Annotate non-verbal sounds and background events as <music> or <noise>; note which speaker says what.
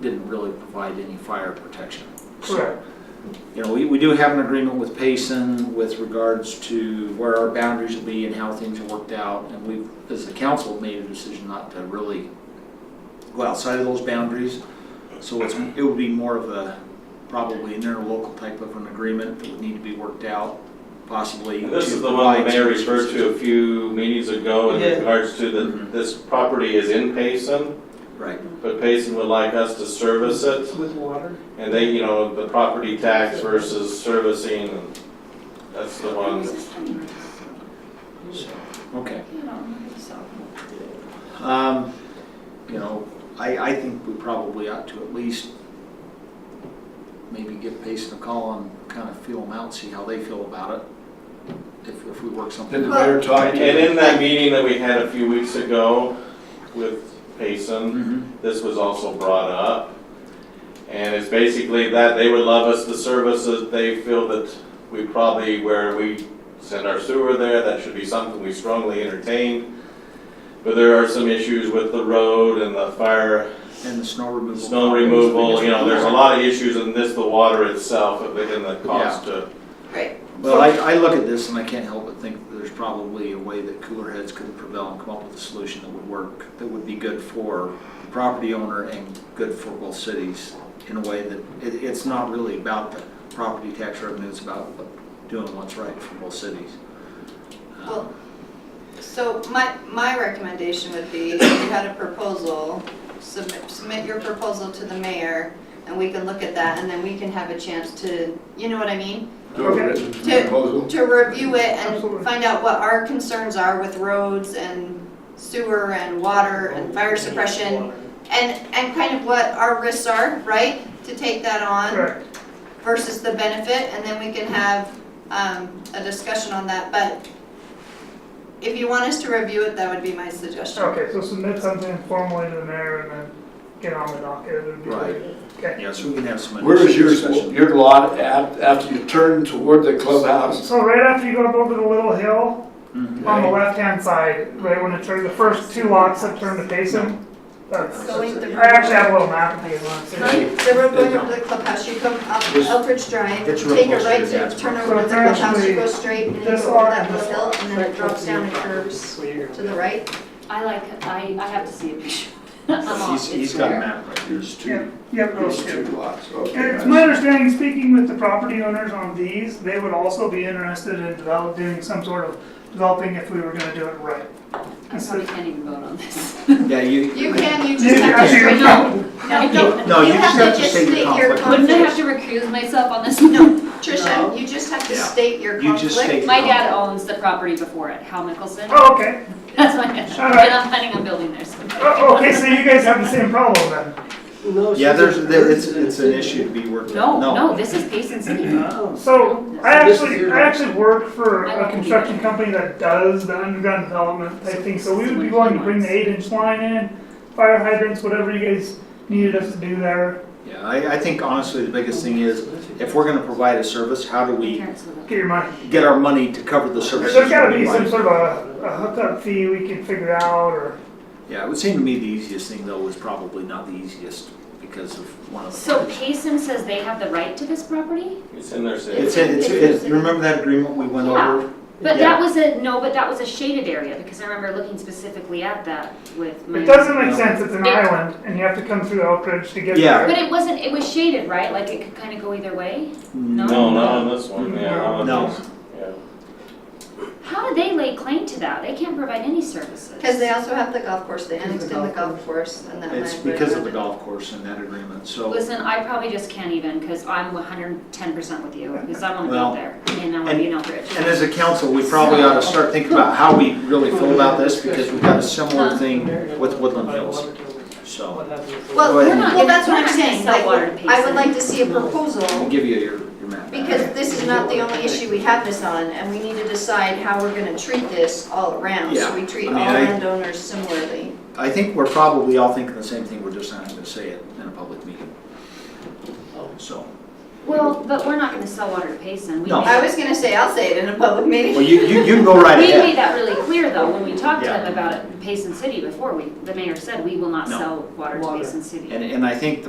Speaker 1: didn't really provide any fire protection. So,
Speaker 2: Correct.
Speaker 1: You know, we, we do have an agreement with Payson with regards to where our boundaries will be and how things are worked out. And we've, as the council, made a decision not to really go outside of those boundaries. So it's, it would be more of a, probably an interlocal type of an agreement that would need to be worked out, possibly.
Speaker 3: And This
Speaker 1: to
Speaker 3: is the one the
Speaker 1: provide
Speaker 3: mayor
Speaker 1: services.
Speaker 3: referred to a few meetings ago
Speaker 2: Yeah.
Speaker 3: in regards to
Speaker 1: Mhm.
Speaker 3: that this property is in Payson,
Speaker 1: Right.
Speaker 3: but Payson would like us to service it.
Speaker 2: With water?
Speaker 3: And they, you know, the property tax versus servicing, and that's the one.
Speaker 1: So, Okay.
Speaker 4: Well,
Speaker 1: Um, You know, I, I think we probably ought to at least maybe give Payson a call and kind of feel them out, see how they feel about it, if, if we work
Speaker 5: Did the
Speaker 1: something out.
Speaker 5: mayor talk
Speaker 3: And
Speaker 5: to
Speaker 3: and
Speaker 5: you?
Speaker 3: in that meeting that we had a few weeks ago with Payson,
Speaker 1: Mhm.
Speaker 3: this was also brought up. And it's basically that they would love us the services, they feel that we probably, where we send our sewer there, that should be something we strongly entertain. But there are some issues with the road and the fire,
Speaker 1: And the snow removal.
Speaker 3: snow removal, you know, there's a lot of issues in this, the water itself, and the- and the cost to.
Speaker 1: Well, I, I look at this and I can't help but think that there's probably a way that cooler heads could prevail and come up with a solution that would work, that would be good for the property owner and good for both cities in a way that, it, it's not really about the property tax revenue, it's about what- doing what's right for both cities. Um,
Speaker 4: So my, my recommendation would be, if you had a proposal, submit, submit your proposal to the mayor, and we can look at that, and then we can have a chance to, you know what I mean?
Speaker 5: To a written
Speaker 4: To-
Speaker 5: proposal?
Speaker 4: To review it and
Speaker 2: Absolutely.
Speaker 4: find out what our concerns are with roads and sewer and water and fire suppression, and, and kind of what our risks are, right? To take that on.
Speaker 2: Correct.
Speaker 4: versus the benefit, and then we can have um, a discussion on that, but if you want us to review it, that would be my suggestion.
Speaker 2: Okay, so submit something formally to the mayor and then get on the docket. It would be
Speaker 1: Right.
Speaker 2: great. Okay.
Speaker 1: Um, Yeah, so we can have some.
Speaker 5: Where is your,
Speaker 1: discussion.
Speaker 5: your lot at, after you turn toward the clubhouse?
Speaker 2: So right after you go up over the little hill,
Speaker 6: Mm-hmm.
Speaker 1: Mhm.
Speaker 2: on the left-hand side, right when it turns, the first two lots that turn to Payson, that's,
Speaker 4: Going the
Speaker 2: I actually have a little map of these ones. too.
Speaker 4: Right, the road going over the clubhouse, you come up
Speaker 1: This-
Speaker 4: Elbridge Drive,
Speaker 1: that's
Speaker 4: take a
Speaker 1: real
Speaker 4: right
Speaker 1: close to
Speaker 4: to
Speaker 1: the
Speaker 4: turn
Speaker 1: dashboard.
Speaker 4: over to the
Speaker 2: So it's
Speaker 4: clubhouse, you go
Speaker 2: actually
Speaker 4: straight, and you
Speaker 2: this
Speaker 4: go over
Speaker 2: lot
Speaker 4: that
Speaker 2: and this
Speaker 4: little hill, and then it drops down and curves to the right.
Speaker 6: I like, I, I have to see a picture. <laughs> I'm
Speaker 1: He's,
Speaker 6: off,
Speaker 1: he's
Speaker 6: it's
Speaker 1: got a
Speaker 6: there.
Speaker 1: map right here.
Speaker 5: There's
Speaker 2: Yeah,
Speaker 5: two,
Speaker 2: Yep,
Speaker 5: there's
Speaker 2: those
Speaker 5: two
Speaker 2: two.
Speaker 5: lots, okay.
Speaker 2: And it's my understanding, speaking with the property owners on these, they would also be interested in develop, doing some sort of developing if we were gonna do it right.
Speaker 6: I probably can't even vote on this.
Speaker 2: <laughs>
Speaker 1: Yeah, you.
Speaker 4: You can, you
Speaker 2: You
Speaker 4: just have to.
Speaker 2: actually-
Speaker 6: <laughs>
Speaker 4: say no. No, don't.
Speaker 1: No, you just have to
Speaker 4: just
Speaker 1: state your
Speaker 4: your
Speaker 1: conflict.
Speaker 6: Wouldn't I have
Speaker 4: conflict.
Speaker 6: to recuse myself on this?
Speaker 4: No,
Speaker 6: No.
Speaker 4: Tricia, you just have to
Speaker 1: Yeah.
Speaker 4: state your
Speaker 1: You just
Speaker 4: conflict.
Speaker 1: state.
Speaker 6: My dad owns the property before it, Hal Mickelson.
Speaker 2: Oh, okay.
Speaker 6: <laughs> That's my dad.
Speaker 2: All right.
Speaker 6: And I'm planning on building there soon.
Speaker 2: Oh, okay, so you guys have the same problem then.
Speaker 1: Yeah, there's, there- it's, it's an issue to be worked
Speaker 6: No,
Speaker 1: out.
Speaker 6: no, this is Payson City.
Speaker 2: So I actually, I actually work for
Speaker 6: I won't
Speaker 2: a
Speaker 6: be
Speaker 2: construction
Speaker 6: there.
Speaker 2: company that does the underground development type thing, so we would be willing to bring the eight inch line in, fire hydrants, whatever you guys needed us to do there,
Speaker 1: Yeah, I, I think honestly, the biggest thing is, if we're gonna provide a service, how do we
Speaker 6: Parents live up
Speaker 2: get your money.
Speaker 1: get our money to cover the services?
Speaker 2: There's gotta be
Speaker 1: we
Speaker 2: some
Speaker 1: provide?
Speaker 2: sort of a, a hookup fee we can figure out, or,
Speaker 1: Yeah, it would seem to me the easiest thing though is probably not the easiest because of one of the.
Speaker 6: So Payson says they have the right to this property?
Speaker 3: It's in their city.
Speaker 1: It's, in- it's, it's, you remember that agreement we went
Speaker 6: Yeah,
Speaker 1: over?
Speaker 6: But
Speaker 1: Yeah.
Speaker 6: that was a, no, but that was a shaded area because I remember looking specifically at that with my.
Speaker 2: it doesn't make sense, it's an
Speaker 6: Yeah.
Speaker 2: island, and you have to come through Elk Ridge to get
Speaker 1: Yeah.
Speaker 2: there.
Speaker 6: But it wasn't, it was shaded, right? Like it could kind of go either way?
Speaker 3: No, not on this one, yeah. on
Speaker 1: No.
Speaker 3: this- yeah.
Speaker 6: How do they lay claim to that? They can't provide any services.
Speaker 4: Because they also have the golf course, they annexed in the golf course and that.
Speaker 1: It's
Speaker 4: might-
Speaker 1: because of the golf course and that agreement, so,
Speaker 6: Listen, I probably just can't even because I'm 110% with you because I want to
Speaker 1: Well,
Speaker 6: go there and I want to be in Elbridge.
Speaker 1: and as a council, we probably ought to start thinking about how we really feel about this because we've got a similar thing with Woodland Hills, so. Well,
Speaker 4: Well, we're not-
Speaker 6: gonna-
Speaker 4: well, that's what
Speaker 6: we're
Speaker 4: I'm
Speaker 6: not gonna
Speaker 4: saying,
Speaker 6: sell
Speaker 4: like,
Speaker 6: water to
Speaker 4: I
Speaker 6: Payson.
Speaker 4: would like to see a
Speaker 1: I'll
Speaker 4: proposal,
Speaker 1: give you your, your map. back.
Speaker 4: because this is not the only issue we have this on, and we need to decide how we're gonna treat this all around, so we treat
Speaker 1: I
Speaker 4: all
Speaker 1: mean, I-
Speaker 4: landowners similarly.
Speaker 1: I think we're probably all thinking the same thing, we're just not gonna say it in a public meeting. So,
Speaker 6: well, but we're not going to sell water to Payson. We
Speaker 1: No.
Speaker 6: made,
Speaker 4: I was gonna say, I'll say it in a public
Speaker 1: well,
Speaker 4: meeting.
Speaker 1: you, you, you can go right
Speaker 6: we
Speaker 1: ahead.
Speaker 6: made that really clear though when we talked
Speaker 1: Yeah.
Speaker 6: to them about it, Payson City before. We the mayor said we will not
Speaker 1: No.
Speaker 6: sell water,
Speaker 7: Water.
Speaker 6: to Payson City.
Speaker 1: And, and I think the